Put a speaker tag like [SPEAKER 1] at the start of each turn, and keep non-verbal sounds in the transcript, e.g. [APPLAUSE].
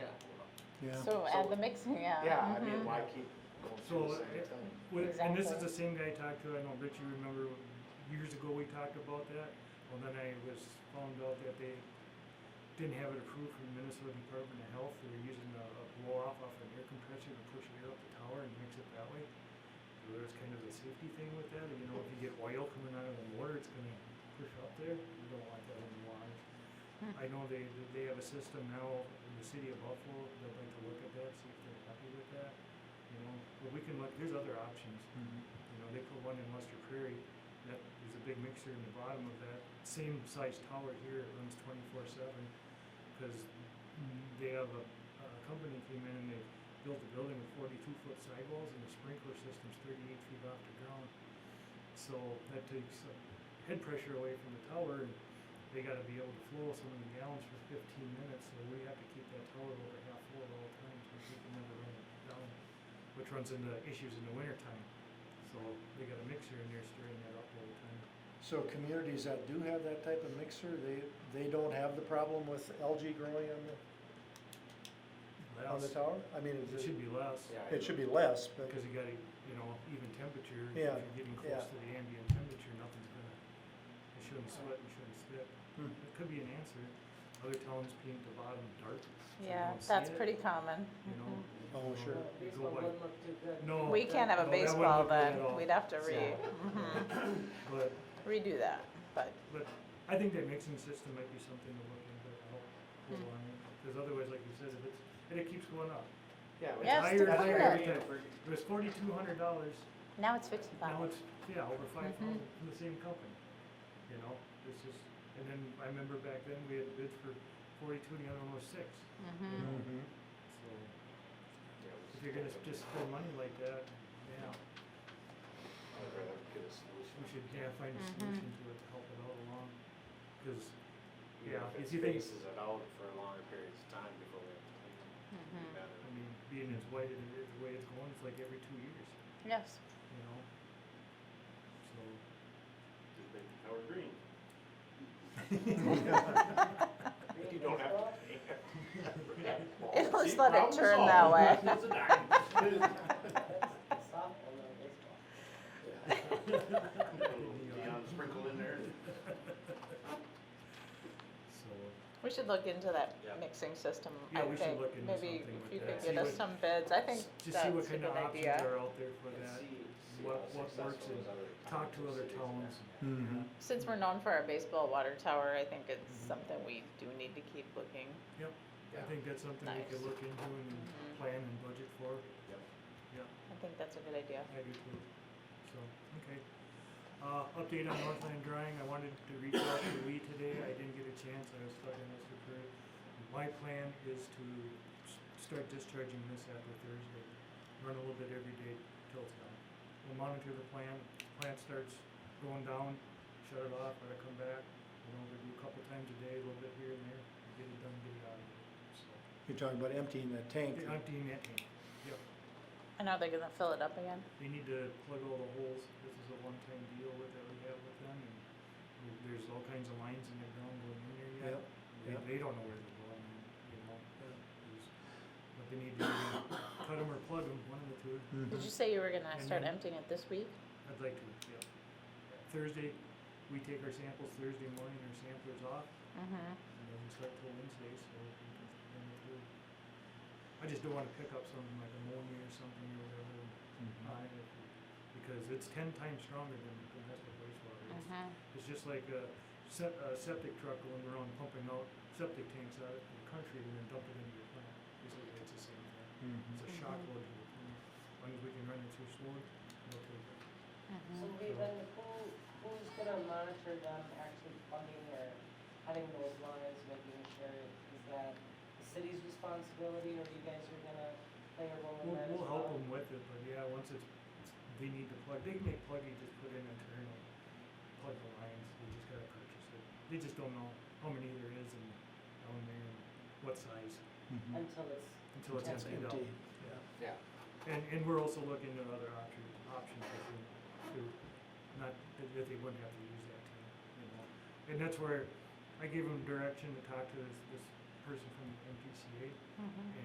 [SPEAKER 1] yeah.
[SPEAKER 2] So
[SPEAKER 3] So-
[SPEAKER 2] add the mixing, yeah.
[SPEAKER 3] Yeah, I mean,
[SPEAKER 2] mhm.
[SPEAKER 3] why keep going through the
[SPEAKER 1] So,
[SPEAKER 3] same
[SPEAKER 1] it-
[SPEAKER 3] thing?
[SPEAKER 1] Well, And this is
[SPEAKER 2] Exactly.
[SPEAKER 1] the same guy I talked to, I know Richie, remember years ago we talked about that? Well, then I was found out that they didn't have it approved from Minnesota Department of Health, they were using a, a blow off off an air compressor to push air up the tower and mix it that way. So there's kind of a safety thing with that, and you know, if you get oil coming out of the water, it's gonna push up there, you don't want that in the water.
[SPEAKER 2] Hmm.
[SPEAKER 1] I know they, they have a system now in the city of Buffalo, they'd like to look at that, see if they're happy with that, you know, but we can look, there's other options.
[SPEAKER 4] Mm-hmm.
[SPEAKER 1] You know, they put one in Lester Prairie, that is a big mixer in the bottom of that same size tower here, it runs twenty-four seven. Cause they have a, a company came in and they built a building with forty-two foot sidewalls and the sprinkler system's thirty-eight feet off the ground. So that takes uh, head pressure away from the tower and they gotta be able to flow so many gallons for fifteen minutes, so we have to keep that tower over half full at all times, so we can never run it down. Which runs into issues in the winter time. So they got a mixer in there stirring that up all the time.
[SPEAKER 4] So communities that do have that type of mixer, they, they don't have the problem with algae growing on the, on the
[SPEAKER 1] Less,
[SPEAKER 4] tower? I mean,
[SPEAKER 1] it
[SPEAKER 4] is it,
[SPEAKER 1] should be less,
[SPEAKER 3] Yeah, I
[SPEAKER 4] it should
[SPEAKER 3] agree.
[SPEAKER 4] be less, but,
[SPEAKER 1] because you gotta, you know, even temperature, if
[SPEAKER 4] Yeah,
[SPEAKER 1] you're getting
[SPEAKER 4] yeah.
[SPEAKER 1] close to the ambient temperature, nothing's gonna, it shouldn't sweat, and shouldn't spit.
[SPEAKER 4] Hmm.
[SPEAKER 1] It could be an answer. Other towns paint the bottom dark. so you
[SPEAKER 2] Yeah,
[SPEAKER 1] don't see
[SPEAKER 2] that's
[SPEAKER 1] it,
[SPEAKER 2] pretty common.
[SPEAKER 1] You know?
[SPEAKER 4] Oh,
[SPEAKER 1] so
[SPEAKER 4] sure.
[SPEAKER 1] you go
[SPEAKER 5] Baseball
[SPEAKER 1] by-
[SPEAKER 5] wouldn't look too good.
[SPEAKER 1] No.
[SPEAKER 2] Mm-hmm. We can't have
[SPEAKER 1] No,
[SPEAKER 2] a
[SPEAKER 1] Oh, that wouldn't
[SPEAKER 2] baseball
[SPEAKER 1] look good at
[SPEAKER 2] then,
[SPEAKER 1] all.
[SPEAKER 2] we'd have to re,
[SPEAKER 1] So-
[SPEAKER 2] mhm,
[SPEAKER 1] But,
[SPEAKER 2] redo that, but,
[SPEAKER 1] but I think that mixing system might be something to look into, to help hold on it. Because otherwise, like you said, if it's, and it keeps going up.
[SPEAKER 3] Yeah, but
[SPEAKER 2] Yes,
[SPEAKER 3] it's
[SPEAKER 2] to
[SPEAKER 3] higher
[SPEAKER 2] keep
[SPEAKER 3] higher
[SPEAKER 2] it.
[SPEAKER 3] than if we're-
[SPEAKER 1] It was forty-two hundred dollars
[SPEAKER 2] now it's
[SPEAKER 1] Now
[SPEAKER 2] fifty-five.
[SPEAKER 1] it's, yeah, over five
[SPEAKER 2] Mhm.
[SPEAKER 1] thousand from the same company, you know, it's just, and then I remember back then we had a bid for forty-two and the other one was six.
[SPEAKER 2] Mhm.
[SPEAKER 4] Mhm.
[SPEAKER 1] So
[SPEAKER 3] yeah, we
[SPEAKER 1] if you're gonna
[SPEAKER 3] just-
[SPEAKER 1] just spend money like that, yeah,
[SPEAKER 3] I'd rather get a solution.
[SPEAKER 1] we should, yeah, find a
[SPEAKER 2] Mhm.
[SPEAKER 1] solution to it to help it out along. Cause,
[SPEAKER 3] Even
[SPEAKER 1] Yeah, if
[SPEAKER 3] if it
[SPEAKER 1] you think-
[SPEAKER 3] spaces it out for longer periods of time before we have to clean it,
[SPEAKER 4] Mm-hmm.
[SPEAKER 2] Mhm.
[SPEAKER 3] it'd be better.
[SPEAKER 1] I mean, being as wide as it is, the way it's going, it's like every two years,
[SPEAKER 2] Yes, [LAUGHS]
[SPEAKER 1] you know? So, [LAUGHS]
[SPEAKER 3] Just make the tower green.
[SPEAKER 5] Green
[SPEAKER 3] You don't have to
[SPEAKER 5] baseball?
[SPEAKER 3] pay.
[SPEAKER 2] It'll
[SPEAKER 3] See,
[SPEAKER 2] just let [LAUGHS] it
[SPEAKER 3] problem
[SPEAKER 2] turn
[SPEAKER 3] solved.
[SPEAKER 2] that way.
[SPEAKER 3] [LAUGHS] It's
[SPEAKER 1] [LAUGHS]
[SPEAKER 3] a dime.
[SPEAKER 5] That's softball, not baseball.
[SPEAKER 3] Neon sprinkle in there.
[SPEAKER 1] so,
[SPEAKER 2] we should look into that
[SPEAKER 3] Yeah.
[SPEAKER 2] mixing system,
[SPEAKER 1] Yeah,
[SPEAKER 2] I
[SPEAKER 1] we should
[SPEAKER 2] think,
[SPEAKER 1] look into
[SPEAKER 2] maybe
[SPEAKER 1] something
[SPEAKER 2] if
[SPEAKER 1] with
[SPEAKER 2] you
[SPEAKER 1] that.
[SPEAKER 2] could
[SPEAKER 1] See
[SPEAKER 2] get us
[SPEAKER 1] what-
[SPEAKER 2] some bids, I think
[SPEAKER 1] just
[SPEAKER 2] that's
[SPEAKER 1] see
[SPEAKER 2] a
[SPEAKER 1] what
[SPEAKER 2] good
[SPEAKER 1] kind of options
[SPEAKER 2] idea.
[SPEAKER 1] are out there for
[SPEAKER 3] And
[SPEAKER 1] that.
[SPEAKER 3] see- see
[SPEAKER 1] what-
[SPEAKER 3] how
[SPEAKER 1] what
[SPEAKER 3] successful
[SPEAKER 1] works
[SPEAKER 3] those
[SPEAKER 1] and
[SPEAKER 3] other
[SPEAKER 1] talk to other
[SPEAKER 3] cities are.
[SPEAKER 1] towns.
[SPEAKER 4] Mhm.
[SPEAKER 2] Since we're known for our baseball water tower, I think it's
[SPEAKER 1] Mm-hmm.
[SPEAKER 2] something we do need to keep looking.
[SPEAKER 1] I
[SPEAKER 3] Yeah.
[SPEAKER 1] think that's something we
[SPEAKER 2] Nice.
[SPEAKER 1] could look into and
[SPEAKER 2] Mhm.
[SPEAKER 1] plan and budget for,
[SPEAKER 2] I think that's a good idea.
[SPEAKER 1] I do too, so, okay. Uh, update on Northland Drying, I wanted to reach out to Lee today, I didn't get a chance, I was talking to Mr. Curry. My plan is to s- start discharging this after Thursday, run a little bit every day till it's done. We'll monitor the plant, plant starts going down, shut it off, let it come back, you know, we do a couple times a day, a little bit here and there, get it done, get it out of here, so.
[SPEAKER 4] You're talking about emptying that tank.
[SPEAKER 1] They're emptying that tank.
[SPEAKER 2] And are they gonna fill it up again?
[SPEAKER 1] They need to plug all the holes. This is a one-time deal with that we have with them, and there- there's all kinds of lines in the ground going in there yet.
[SPEAKER 4] Yep,
[SPEAKER 1] They,
[SPEAKER 4] yep.
[SPEAKER 1] they don't know where they're going, you know, there's- but they need to either cut them or plug them, one of the two.
[SPEAKER 2] Did
[SPEAKER 4] Mhm.
[SPEAKER 2] you say you were gonna
[SPEAKER 1] And
[SPEAKER 2] start
[SPEAKER 1] then-
[SPEAKER 2] emptying it this week?
[SPEAKER 1] I'd like to, yeah. Thursday, we take our samples Thursday morning, our samplers off,
[SPEAKER 2] Mm-hmm.
[SPEAKER 1] and then we start till Wednesday, so we can run it through. I just don't wanna pick up something like ammonia or something or whatever, and
[SPEAKER 4] Mhm.
[SPEAKER 1] on it because it's ten times stronger than domestic wastewater. It's,
[SPEAKER 5] Uh-huh.
[SPEAKER 2] Mm-hmm.
[SPEAKER 1] it's just like a, se- a septic truck going around pumping out septic tanks out of the country and then dumping into your plant. Basically, it's the same thing. It's
[SPEAKER 4] Mhm.
[SPEAKER 1] a shock
[SPEAKER 5] Mm-hmm.
[SPEAKER 1] load to the plant. As long as we can run it through slowly, we'll take it.
[SPEAKER 2] Mm-hmm.
[SPEAKER 5] So
[SPEAKER 1] Mm-hmm.
[SPEAKER 5] we, then who, who's gonna monitor them actually plugging or cutting those lines, making sure, is that the city's responsibility, or you guys are gonna play a role in
[SPEAKER 1] We'll,
[SPEAKER 5] that as well?
[SPEAKER 1] we'll help them with it, but yeah, once it's, they need to plug, they can make plug, you just put in internal, plug the lines, they just gotta purchase it. They just don't know how many there is and how many, and what size,
[SPEAKER 4] Mhm.
[SPEAKER 5] Until Mm-hmm. it's,
[SPEAKER 1] until it's
[SPEAKER 5] That's
[SPEAKER 1] emptied out.
[SPEAKER 4] empty.
[SPEAKER 1] Yeah.
[SPEAKER 3] Yeah,
[SPEAKER 1] And, and we're also looking at other option, options if we, to, not, that that they wouldn't have to use that tank, you know? And that's
[SPEAKER 2] Mm-hmm.
[SPEAKER 1] where I gave them direction to talk to this, this person from MPCA,